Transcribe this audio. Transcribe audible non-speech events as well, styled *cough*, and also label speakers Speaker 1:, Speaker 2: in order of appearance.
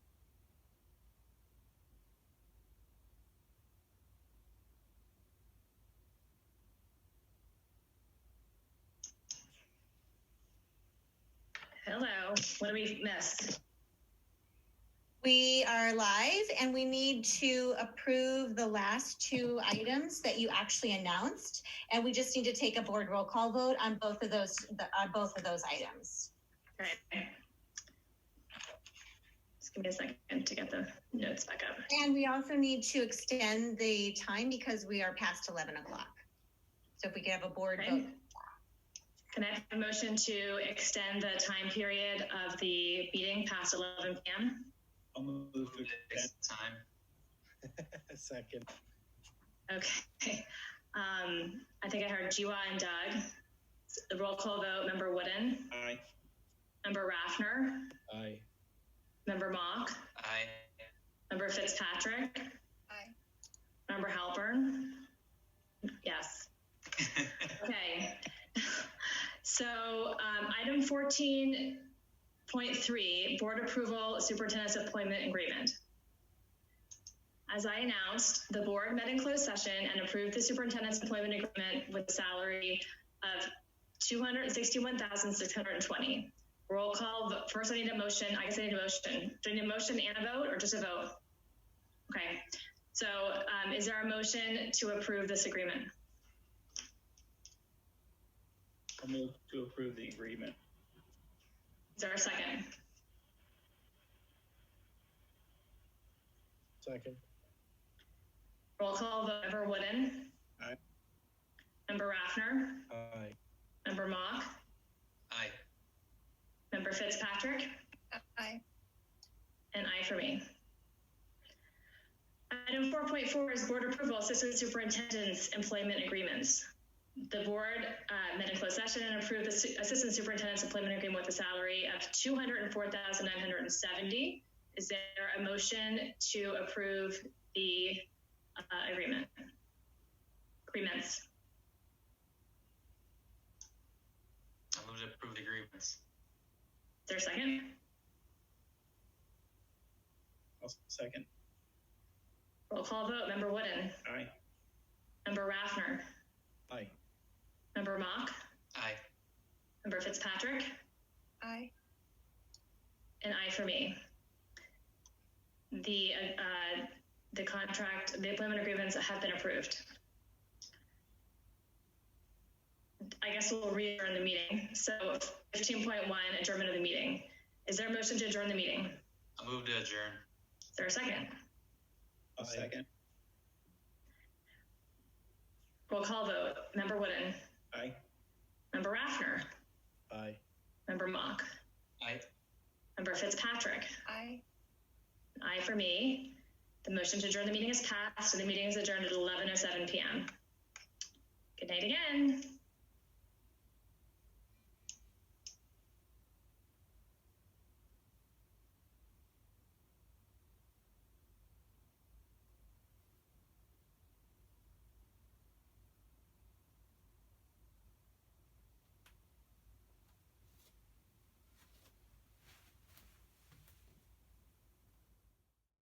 Speaker 1: Hello. What do we miss?
Speaker 2: We are live and we need to approve the last two items that you actually announced. And we just need to take a board roll call vote on both of those, the- on both of those items.
Speaker 1: Okay. Just give me a second to get the notes back up.
Speaker 2: And we also need to extend the time because we are past 11 o'clock. So if we could have a board
Speaker 1: Okay.
Speaker 2: vote.
Speaker 1: Can I have a motion to extend the time period of the meeting past 11 p.m.?
Speaker 3: I'll move to
Speaker 4: Move it
Speaker 3: extend
Speaker 4: next time.
Speaker 3: a *laughs* second.
Speaker 1: Okay. Um, I think I heard Jiwa and Doug. The roll call vote, member Wooden,
Speaker 3: Aye.
Speaker 1: member Raffner,
Speaker 3: Aye.
Speaker 1: member Mock,
Speaker 4: Aye.
Speaker 3: *laughs*
Speaker 1: member Fitzpatrick.
Speaker 2: Aye.
Speaker 1: Member Halpern. Yes. Okay. So um, item fourteen point three, board approval, superintendent's appointment agreement. As I announced, the board met in closed session and approved the superintendent's employment agreement with salary of two hundred sixty-one thousand six hundred and twenty. Roll call, vo- first I need a motion, I guess I need a motion. Do I need a motion and a vote or just a vote? Okay, so um, is there a motion to approve this agreement?
Speaker 3: I'll move to approve the agreement.
Speaker 1: Is there a second?
Speaker 3: Second.
Speaker 1: Roll call, vote. member Wooden.
Speaker 3: Aye.
Speaker 1: Member Raffner.
Speaker 3: Aye.
Speaker 1: Member Mock.
Speaker 4: Aye.
Speaker 1: Member Fitzpatrick.
Speaker 2: Aye.
Speaker 1: And aye for me. Item 4.4 is board approval, assistant superintendent's employment agreements. The board uh, met in closed session and approved the su- assistant superintendent's employment agreement with a salary of 204970 Is there a motion to approve the uh, agreement? Agreements.
Speaker 4: I'll move to approve the agreements.
Speaker 1: Is there a second?
Speaker 3: I'll second.
Speaker 1: Roll call vote. Member Wooden.
Speaker 3: Aye.
Speaker 1: Member Raffner.
Speaker 3: Aye.
Speaker 1: Member Mock.
Speaker 4: Aye.
Speaker 1: Member Fitzpatrick.
Speaker 2: Aye.
Speaker 1: An aye for me. The, uh, uh, the contract, the employment agreements have been approved. I guess we'll adjourn the meeting. So fifteen point one, adjournment of the meeting. Is there a motion to adjourn the meeting? Is
Speaker 4: I'll move to adjourn.
Speaker 1: there a second?
Speaker 3: I'll second.
Speaker 1: Roll call vote. Member Wooden.
Speaker 3: Aye.
Speaker 1: Member Raffner.
Speaker 3: Aye.
Speaker 1: Member Mock.
Speaker 4: Aye.
Speaker 1: Member Fitzpatrick.
Speaker 2: Aye.
Speaker 1: An aye for me. The motion to adjourn the meeting is passed, and the meeting is adjourned at eleven oh seven PM. Good night again.